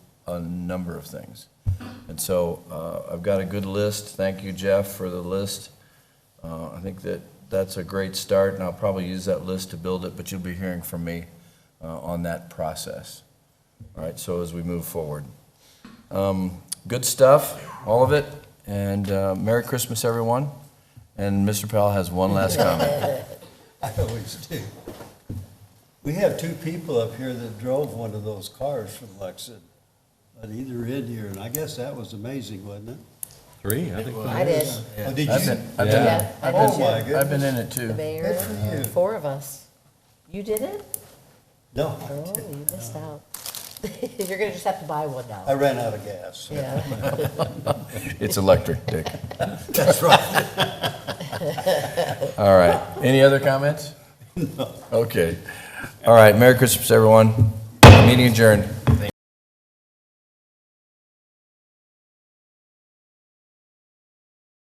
a number of things. And so uh, I've got a good list. Thank you, Jeff, for the list. Uh, I think that that's a great start, and I'll probably use that list to build it, but you'll be hearing from me uh, on that process. All right, so as we move forward. Um, Good stuff, all of it, and uh, Merry Christmas, everyone. And Mr. Powell has one last comment. I always do. We have two people up here that drove one of those cars from Lexington, but either in here, and I guess that was amazing, wasn't it? Three, I think. I did. Oh, did I've you? been, I've been, Yeah, I Oh, did my too. goodness. I've been in it The too. mayor, Good for you. four of us. You did it? No, I Oh, didn't. you missed out. You're gonna just have to buy one I now. ran out of gas. Yeah. It's electric, Dick. That's right. All right. Any other comments? Okay. All right. Merry Christmas, everyone. Meeting adjourned.